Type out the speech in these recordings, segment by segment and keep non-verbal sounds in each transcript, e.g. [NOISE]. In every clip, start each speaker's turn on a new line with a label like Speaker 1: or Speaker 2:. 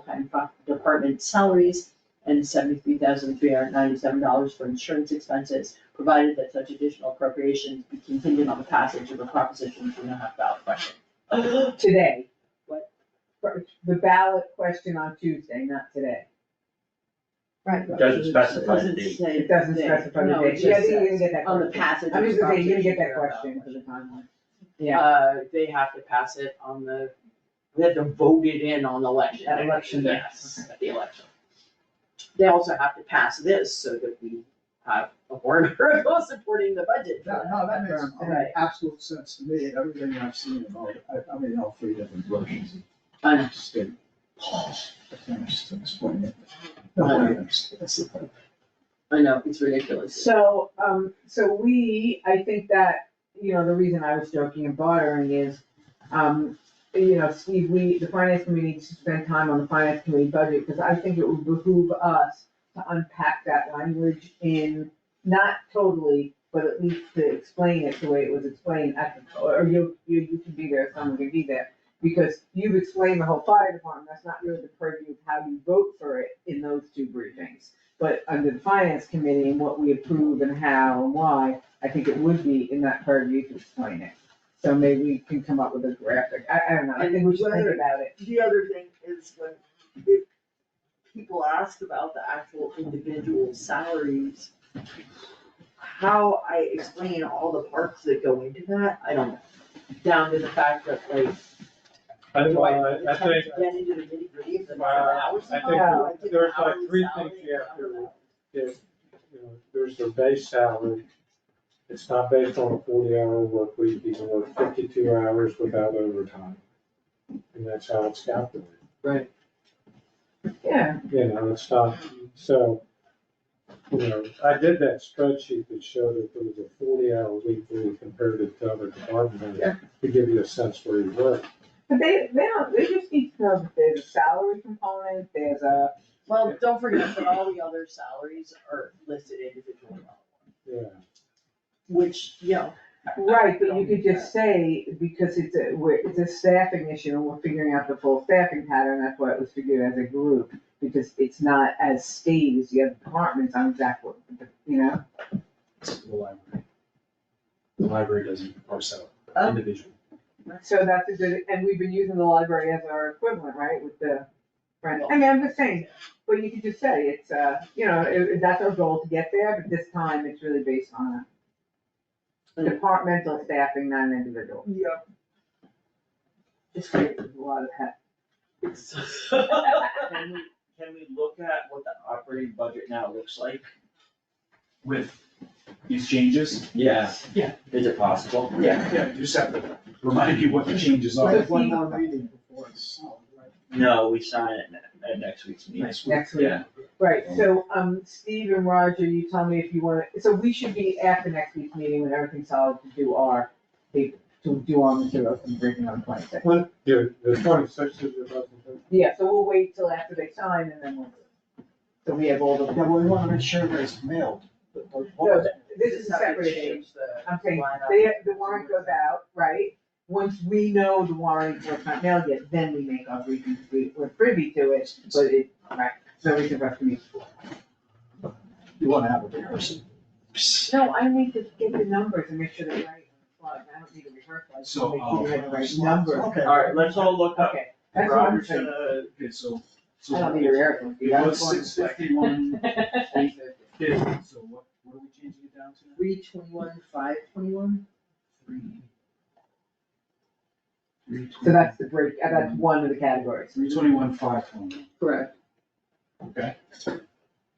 Speaker 1: full-time fa- department salaries and seventy-three thousand three hundred ninety-seven dollars for insurance expenses, provided that such additional appropriations be contingent on the passage of a proposition two and a half ballot question.
Speaker 2: today.
Speaker 1: What?
Speaker 2: For- The ballot question on Tuesday, not today.
Speaker 3: Right.
Speaker 4: It doesn't specify the
Speaker 1: Doesn't
Speaker 4: date.
Speaker 1: say
Speaker 2: It doesn't
Speaker 1: the-
Speaker 2: specify the
Speaker 1: no, it
Speaker 2: date. Yeah, I
Speaker 1: just
Speaker 2: think you didn't
Speaker 1: says
Speaker 2: get that
Speaker 1: on the
Speaker 2: question.
Speaker 1: passage
Speaker 2: I'm
Speaker 1: of
Speaker 2: just
Speaker 1: the
Speaker 2: gonna say, you didn't get
Speaker 1: proposition
Speaker 2: that
Speaker 1: two and a half
Speaker 2: question
Speaker 1: ballot
Speaker 2: for the timeline.
Speaker 1: question.
Speaker 2: Yeah,
Speaker 1: Uh, they have to pass it on the, they have to vote it in on election.
Speaker 2: At election day.
Speaker 1: Yes, at the election. They also have to pass this so that we have a warrant [LAUGHS] article supporting the budget.
Speaker 5: No, no, that makes
Speaker 1: Right.
Speaker 5: absolute sense to me, everything I've seen about, it. I, I mean, all three different versions.
Speaker 1: I know.
Speaker 5: State. I can't just explain it. No, I understand. That's the point.
Speaker 1: I know, it's ridiculous.
Speaker 2: so, um, so we, I think that, you know, the reason I was joking and bothering is, um, you know, Steve, we, the finance committee needs to spend time on the finance committee budget, because I think it would behoove us to unpack that language in, not totally, but at least to explain it the way it was explained at the, or you, you, you can be there, someone can be there. Because you've explained the whole fire department, that's not really the purview of how you vote for it in those two briefings. But under the finance committee and what we approve and how and why, I think it would be in that purview to explain it. So maybe we can come up with a graphic, I, I don't know, I think we should think
Speaker 3: Whether-
Speaker 2: about it.
Speaker 3: The other thing is when, if people ask about the actual individual salaries, how I explain all the parts that go into that, I don't know. Down to the fact that like,
Speaker 6: I,
Speaker 3: do I
Speaker 6: well, I I
Speaker 3: attempt
Speaker 6: think,
Speaker 3: to get into the nitty gritty of the
Speaker 6: Well,
Speaker 3: hours?
Speaker 6: I think
Speaker 2: there-
Speaker 6: there's like three things you have to if, you know, there's their base salary. It's not based on a forty-hour work week, you can work fifty-two hours without overtime. And that's how it's calculated,
Speaker 2: Yeah,
Speaker 6: you know, it's not, so, you know, I did that spreadsheet that showed if it was a forty-hour week, when you compared it to other departments,
Speaker 2: Yeah.
Speaker 6: to give you a sense where you were.
Speaker 2: But they, they don't, they just need to know that there's a salary component, there's a,
Speaker 1: Well, don't forget that all the other salaries are listed individually,
Speaker 6: Yeah,
Speaker 1: which, you know.
Speaker 2: right, but you could just say, because it's a, we're, it's a staffing issue, and we're figuring out the full staffing pattern, that's why it was figured as a group, because it's not as stated as the other departments on exactly, you know?
Speaker 7: the library. The library doesn't parse
Speaker 3: Oh.
Speaker 5: Uh,
Speaker 7: out individual.
Speaker 2: So that's a good, and we've been using the library as our equivalent, right, with the, right, I mean, I'm just saying, but you could just say, it's, uh, you know, it, it- that's our goal to get there, but this time it's really based on a departmental staffing, not an individual.
Speaker 3: Yeah.
Speaker 2: Just creates a lot of heck.
Speaker 6: [LAUGHS]
Speaker 4: Can we, can we look at what the operating budget now looks like?
Speaker 7: With these changes?
Speaker 4: Yeah. Yeah. Is it possible?
Speaker 7: Yeah. Yeah, you just have to remind me what the changes are.
Speaker 5: Like one more reading before it's solved, right?
Speaker 4: No, we sign it at, at next week's meeting.
Speaker 7: Next week.
Speaker 2: Next week.
Speaker 4: Yeah.
Speaker 2: Right, so, um, Steve and Roger, you tell me if you wanna, so we should be after next week's meeting when everything's solid to do our, to do our materials and bring them on twenty second.
Speaker 6: yeah, the twenty-sixth is your budget.
Speaker 2: Yeah, so we'll wait till after they sign and then we'll. So we have all the.
Speaker 5: Yeah, well, we wanna make sure that it's mailed, but the-
Speaker 2: No,
Speaker 5: what-
Speaker 2: this is a
Speaker 1: how we
Speaker 2: separate thing.
Speaker 1: change the
Speaker 2: I'm saying,
Speaker 1: line up.
Speaker 2: they, the warrant goes out, right? Once we know the warrant was not mailed yet, then we make our briefing, we, we're privy to it, but it, right, so we can rush to meet.
Speaker 5: you wanna have a rehearsal.
Speaker 2: No, I need to get the numbers and make sure they're right on the plug, I don't need a rehearsal, I just
Speaker 7: So,
Speaker 2: wanna make sure
Speaker 7: um,
Speaker 2: you have the right number.
Speaker 5: Okay.
Speaker 4: Alright, let's all look up.
Speaker 2: Okay, that's what I'm
Speaker 7: Robert's
Speaker 2: saying,
Speaker 7: gonna, okay, so. so
Speaker 2: I don't need a rehearsal.
Speaker 7: It was six fifty-one, fifty, so what, what are we changing it down to?
Speaker 3: Three twenty-one, five twenty-one?
Speaker 7: Three.
Speaker 2: So that's the break, uh, that's one of the categories.
Speaker 7: Three twenty-one, five twenty.
Speaker 1: Correct,
Speaker 7: Okay.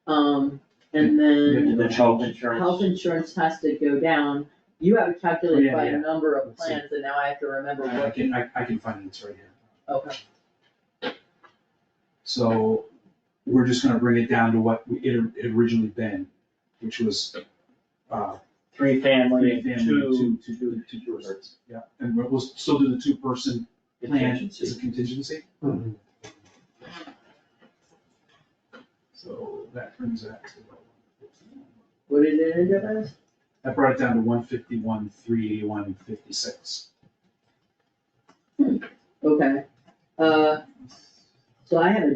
Speaker 1: um, and then
Speaker 4: And then health insurance.
Speaker 1: health insurance has to go down. You have it calculated
Speaker 7: Oh, Yeah,
Speaker 1: by a
Speaker 7: yeah.
Speaker 1: number of
Speaker 7: Let's see.
Speaker 1: plans, and now I have to remember
Speaker 7: I I
Speaker 1: what,
Speaker 7: can, I, I can find it, it's right here.
Speaker 1: okay,
Speaker 7: So we're just gonna bring it down to what we- it had originally been, which was, uh,
Speaker 4: Three family,
Speaker 7: three family,
Speaker 4: two
Speaker 7: two, two, two, two persons. Yeah, and we'll- we'll still do the two-person plan as
Speaker 4: contingencies.
Speaker 7: a contingency. So that brings that to,
Speaker 1: what did it end up as?
Speaker 7: that brought it down to one fifty-one, three eighty-one, fifty-six.
Speaker 1: Okay, uh, so I have a